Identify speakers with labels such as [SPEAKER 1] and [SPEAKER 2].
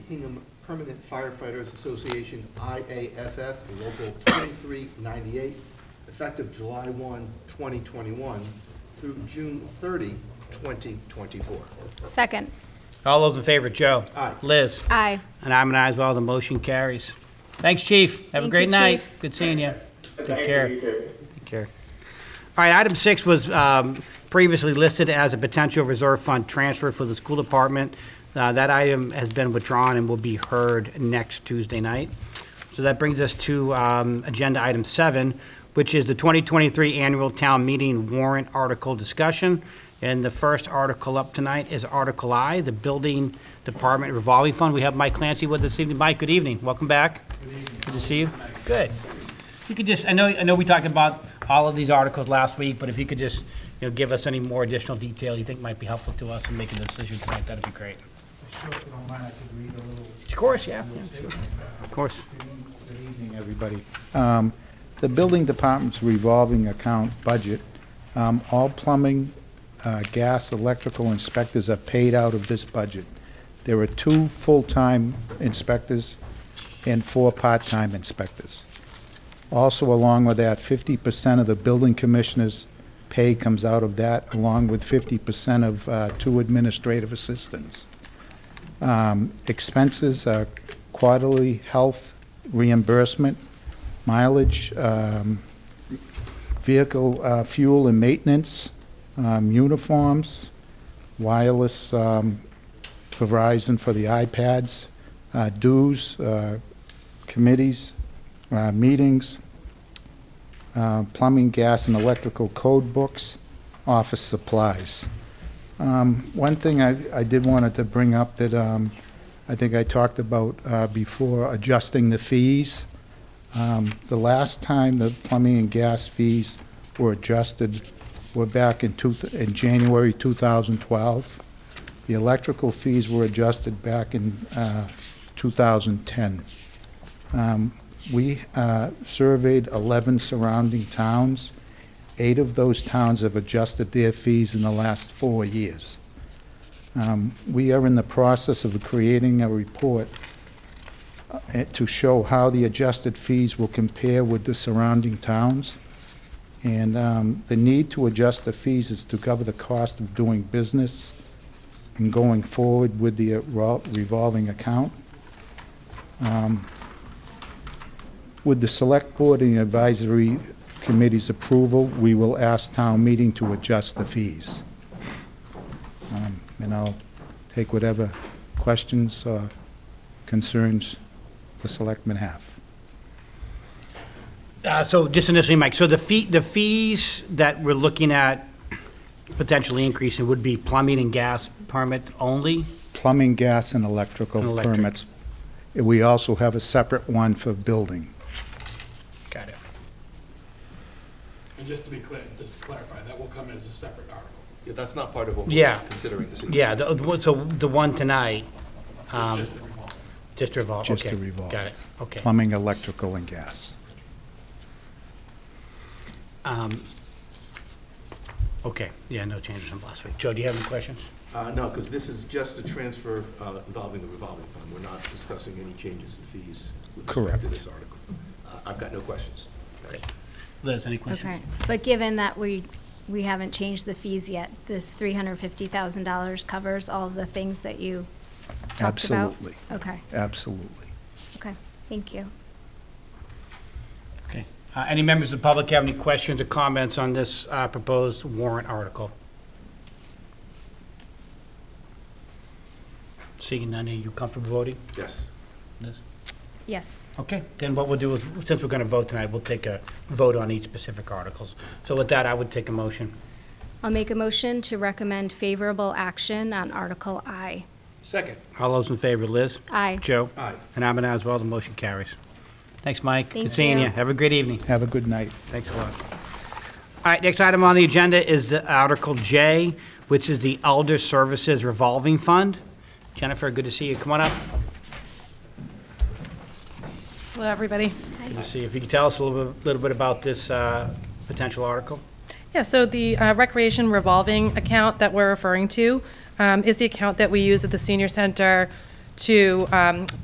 [SPEAKER 1] Hingham Permanent Firefighters Association, IAFF, Local 2398, effective July 1, 2021 through June 30, 2024.
[SPEAKER 2] Second.
[SPEAKER 3] All those in favor, Joe?
[SPEAKER 1] Aye.
[SPEAKER 3] Liz?
[SPEAKER 2] Aye.
[SPEAKER 3] And I'm an aye as well, the motion carries. Thanks, chief. Have
[SPEAKER 2] Thank
[SPEAKER 3] a
[SPEAKER 2] you,
[SPEAKER 3] great night.
[SPEAKER 2] Chief.
[SPEAKER 3] Good seeing you. Take
[SPEAKER 4] Thank
[SPEAKER 3] care.
[SPEAKER 4] you, you too.
[SPEAKER 3] Take care. All right, item six was um, previously listed as a potential reserve fund transfer for the school department. Uh, That item has been withdrawn and will be heard next Tuesday night. So that brings us to um, agenda item seven, which is the 2023 annual town meeting warrant article discussion. And the first article up tonight is Article I, the Building Department Revolving Fund. We have Mike Clancy with us this evening. Mike, good evening. Welcome back. Good evening. Good to see you. Good. If you could just, I know, I know we talked about all of these articles last week, but if you could just, you know, give us any more additional detail you think might be helpful to us in making a decision tonight, that'd be great.
[SPEAKER 5] Sure, if you don't mind, I could read a little
[SPEAKER 3] Of course, yeah,
[SPEAKER 5] statement.
[SPEAKER 3] of course.
[SPEAKER 5] Good evening, everybody. Um, The building department's revolving account budget, um, all plumbing, uh, gas, electrical inspectors are paid out of this budget. There are two full-time inspectors and four part-time inspectors. Also, along with that, 50% of the building commissioner's pay comes out of that, along with 50% of uh, two administrative assistants. Um, Expenses are quarterly health reimbursement, mileage, um, vehicle uh, fuel and maintenance, um, uniforms, wireless um, Verizon for the iPads, uh, dues, uh, committees, uh, meetings, uh, plumbing, gas, and electrical code books, office supplies. Um, One thing I I did wanted to bring up that um, I think I talked about uh, before, adjusting the fees. Um, The last time the plumbing and gas fees were adjusted were back in two, in January 2012. The electrical fees were adjusted back in uh, 2010. Um, We uh, surveyed 11 surrounding towns. Eight of those towns have adjusted their fees in the last four years. Um, We are in the process of creating a report uh, to show how the adjusted fees will compare with the surrounding towns. And um, the need to adjust the fees is to cover the cost of doing business and going forward with the uh, revolving account. With the Select Board and Advisory Committee's approval, we will ask town meeting to adjust the fees. Um, And I'll take whatever questions or concerns the selectmen have.
[SPEAKER 3] Uh, So just initially, Mike, so the fee, the fees that we're looking at potentially increasing would be plumbing and gas permits only?
[SPEAKER 5] Plumbing, gas, and electrical
[SPEAKER 3] And electric.
[SPEAKER 5] permits. And We also have a separate one for building.
[SPEAKER 3] Got it.
[SPEAKER 6] And just to be clear, just to clarify, that will come in as a separate article.
[SPEAKER 1] Yeah, that's not part of what
[SPEAKER 3] Yeah.
[SPEAKER 1] we're considering this evening.
[SPEAKER 3] Yeah, the- the one- so the one tonight, um,
[SPEAKER 6] Just the revolving.
[SPEAKER 3] just revolve, okay.
[SPEAKER 5] Just the revolve.
[SPEAKER 3] Got it, okay.
[SPEAKER 5] Plumbing, electrical, and gas.
[SPEAKER 3] Um, Okay, yeah, no changes from last week. Joe, do you have any questions?
[SPEAKER 1] Uh, No, because this is just a transfer uh, involving the revolving fund. We're not discussing any changes in fees with respect to
[SPEAKER 5] Correct.
[SPEAKER 1] this article. Uh, I've got no questions.
[SPEAKER 3] Liz, any questions?
[SPEAKER 2] Okay. But given that we, we haven't changed the fees yet, this $350,000 covers all of the things that you talked about?
[SPEAKER 5] Absolutely,
[SPEAKER 2] Okay,
[SPEAKER 5] absolutely.
[SPEAKER 2] okay. Thank you.
[SPEAKER 3] Okay. Uh, Any members of the public have any questions or comments on this uh, proposed warrant article? Seeing none, are you comfortable voting?
[SPEAKER 1] Yes.
[SPEAKER 3] Liz?
[SPEAKER 2] Yes.
[SPEAKER 3] Okay, then what we'll do is, since we're going to vote tonight, we'll take a vote on each specific articles. So with that, I would take a motion.
[SPEAKER 2] I'll make a motion to recommend favorable action on Article I.
[SPEAKER 1] Second.
[SPEAKER 3] All those in favor, Liz?
[SPEAKER 2] Aye.
[SPEAKER 3] Joe?
[SPEAKER 1] Aye.
[SPEAKER 3] And I'm an aye as well, the motion carries. Thanks, Mike.
[SPEAKER 2] Thank
[SPEAKER 3] Good seeing
[SPEAKER 2] you.
[SPEAKER 3] you. Have a great evening.
[SPEAKER 5] Have a good night.
[SPEAKER 3] Thanks a lot. All right, next item on the agenda is the Article J, which is the Elder Services Revolving Fund. Jennifer, good to see you. Come on up.
[SPEAKER 7] Hello, everybody.
[SPEAKER 3] Good to see you. If you could tell us a little bit- little bit about this uh, potential article?
[SPEAKER 7] Yeah, so the uh, recreation revolving account that we're referring to um, is the account that we use at the senior center to um,